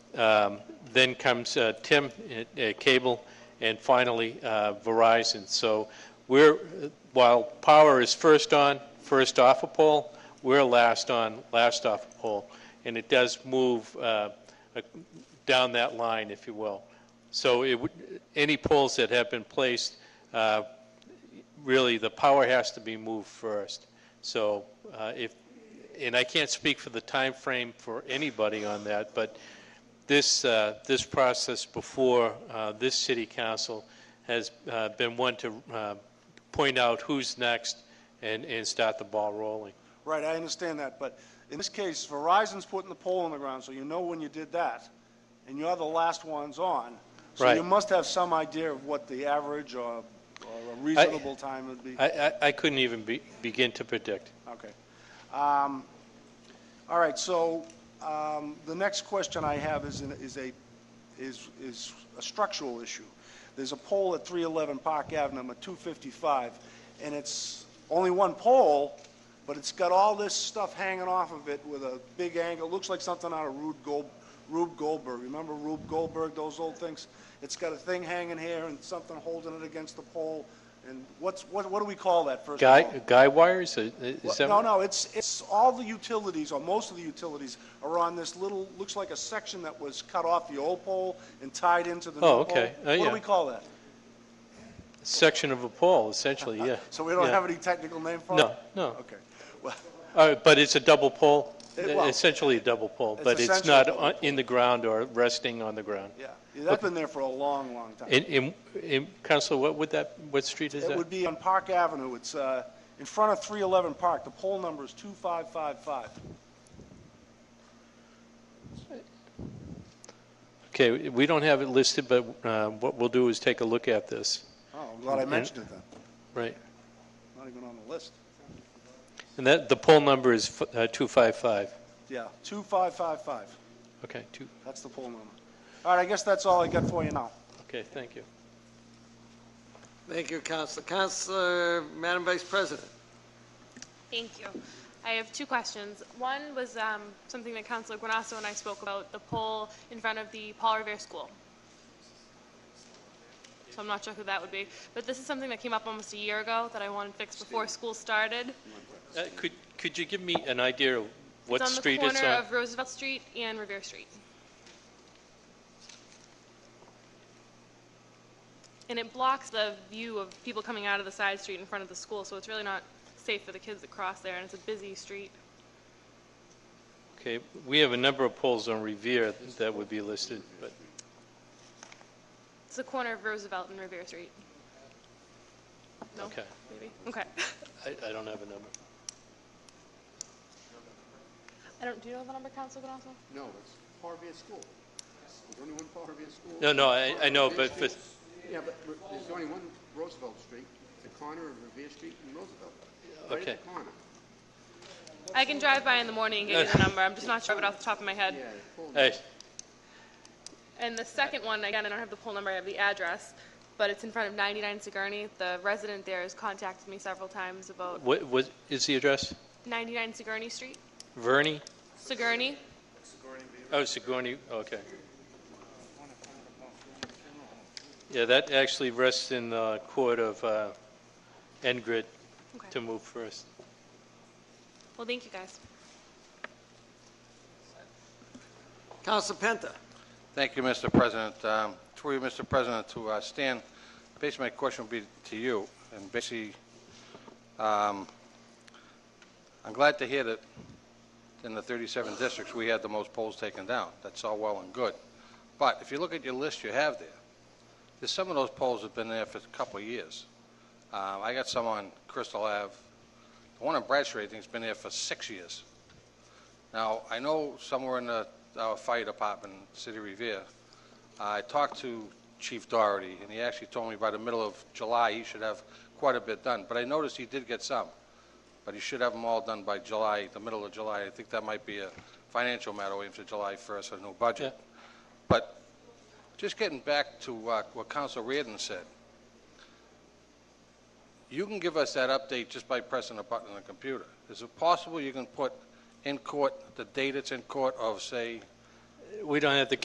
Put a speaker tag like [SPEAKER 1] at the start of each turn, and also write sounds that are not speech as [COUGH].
[SPEAKER 1] Um, Then comes uh, Tim uh, uh, Cable, and finally uh, Verizon. So we're, while power is first on, first off a pole, we're last on, last off a pole. And it does move uh, down that line, if you will. So it would, any poles that have been placed, uh, really, the power has to be moved first. So uh, if, and I can't speak for the time frame for anybody on that, but this, uh, this process before uh, this city council has uh, been one to uh, point out who's next and, and start the ball rolling.
[SPEAKER 2] Right, I understand that, but in this case, Verizon's putting the pole in the ground, so you know when you did that, and you're the last ones on. So
[SPEAKER 1] Right.
[SPEAKER 2] you must have some idea of what the average or, or a reasonable time would be.
[SPEAKER 1] I, I, I couldn't even be, begin to predict.
[SPEAKER 2] Okay. Um, All right, so um, the next question I have is, an- is a, is, is a structural issue. There's a pole at 311 Park Ave, number 255, and it's only one pole, but it's got all this stuff hanging off of it with a big angle, looks like something out of Rube Gold, Rube Goldberg. Remember Rube Goldberg, those old things? It's got a thing hanging here and something holding it against the pole, and what's, what, what do we call that, first of all?
[SPEAKER 1] Guy, guy wires, is is that?
[SPEAKER 2] No, no, it's, it's, all the utilities, or most of the utilities, are on this little, looks like a section that was cut off the old pole and tied into the new pole.
[SPEAKER 1] Oh, okay. Uh,
[SPEAKER 2] What do
[SPEAKER 1] yeah.
[SPEAKER 2] we call that?
[SPEAKER 1] Section of a pole, essentially, yeah.
[SPEAKER 2] [LAUGHS] So we don't
[SPEAKER 1] Yeah.
[SPEAKER 2] have any technical name for it?
[SPEAKER 1] No, no.
[SPEAKER 2] Okay. Well, [LAUGHS]
[SPEAKER 1] Uh, But it's a double pole,
[SPEAKER 2] It- well,
[SPEAKER 1] essentially a double pole,
[SPEAKER 2] it's
[SPEAKER 1] but it's
[SPEAKER 2] essentially
[SPEAKER 1] not
[SPEAKER 2] a double
[SPEAKER 1] on- in the ground or resting on the ground.
[SPEAKER 2] yeah, Yeah, that's been there for a long, long time.
[SPEAKER 1] And, and- and, Counselor, what would that, what street is
[SPEAKER 2] It
[SPEAKER 1] that?
[SPEAKER 2] would be on Park Avenue, it's, uh, in front of 311 Park, the pole number is 2555.
[SPEAKER 1] Okay, we don't have it listed, but uh, what we'll do is take a look at this,
[SPEAKER 2] Oh, I'm glad I mentioned it then,
[SPEAKER 1] right?
[SPEAKER 2] not even on the list.
[SPEAKER 1] And that, the poll number is f- uh, 255,
[SPEAKER 2] Yeah, 2555,
[SPEAKER 1] okay, two,
[SPEAKER 2] that's the pole number. All right, I guess that's all I got for you now.
[SPEAKER 1] okay, thank you.
[SPEAKER 3] Thank you, Counselor. Counselor, Madam Vice President.
[SPEAKER 4] Thank you. I have two questions. One was um, something that Councilor Guanasso and I spoke about, the pole in front of the Paul Revere School. So I'm not sure who that would be, but this is something that came up almost a year ago that I wanted fixed before school started.
[SPEAKER 1] Uh, Could, could you give me an idea of what street
[SPEAKER 4] It's on the
[SPEAKER 1] it's
[SPEAKER 4] corner
[SPEAKER 1] on?
[SPEAKER 4] of Roosevelt Street and Revere Street. And it blocks the view of people coming out of the side street in front of the school, so it's really not safe for the kids to cross there, and it's a busy street.
[SPEAKER 1] Okay, we have a number of polls on Revere that would be listed, but,
[SPEAKER 4] It's the corner of Roosevelt and Revere Street. No?
[SPEAKER 1] okay,
[SPEAKER 4] Maybe? Okay.
[SPEAKER 1] I, I don't have a number.
[SPEAKER 4] I don't, do you know the number, Council Ganasso?
[SPEAKER 5] No, it's Parvia School. There's only one Parvia School.
[SPEAKER 1] No, no, I, I know, but, but,
[SPEAKER 5] Yeah, but re- there's only one Roosevelt Street, the corner of Revere Street and Roosevelt. Right
[SPEAKER 1] Okay.
[SPEAKER 5] at the corner.
[SPEAKER 4] I can drive by in the morning and get you the number, I'm just not sure of it off the top of my head.
[SPEAKER 5] Yeah, full-
[SPEAKER 1] hey,
[SPEAKER 4] And the second one, again, I don't have the poll number, I have the address, but it's in front of 99 Sigourney. The resident there has contacted me several times about
[SPEAKER 1] what, what is the address?
[SPEAKER 4] 99 Sigourney Street?
[SPEAKER 1] Verney?
[SPEAKER 4] Sigourney?
[SPEAKER 1] Oh, Sigourney, okay. Yeah, that actually rests in the court of uh, Ngrid to
[SPEAKER 4] Okay.
[SPEAKER 1] move first.
[SPEAKER 4] Well, thank you, guys.
[SPEAKER 3] Counselor Penta.
[SPEAKER 6] Thank you, Mr. President. Um, Through you, Mr. President, to uh, Stan, basically my question would be to you, and basically, um, I'm glad to hear that in the 37 districts, we had the most polls taken down. That's all well and good. But if you look at your list you have there, there's some of those polls have been there for a couple of years. Um, I got some on Crystal Ave. The one on Bradstreet, I think, has been there for six years. Now, I know somewhere in the, our fire department, City of Revere, I talked to Chief Doherty, and he actually told me by the middle of July, he should have quite a bit done. But I noticed he did get some, but he should have them all done by July, the middle of July. I think that might be a financial matter, waiting for July 1st, a new budget. But just getting back to uh, what Council Reardon said, you can give us that update just by pressing a button on the computer. Is it possible you can put in court the date it's in court of, say,
[SPEAKER 1] We don't have the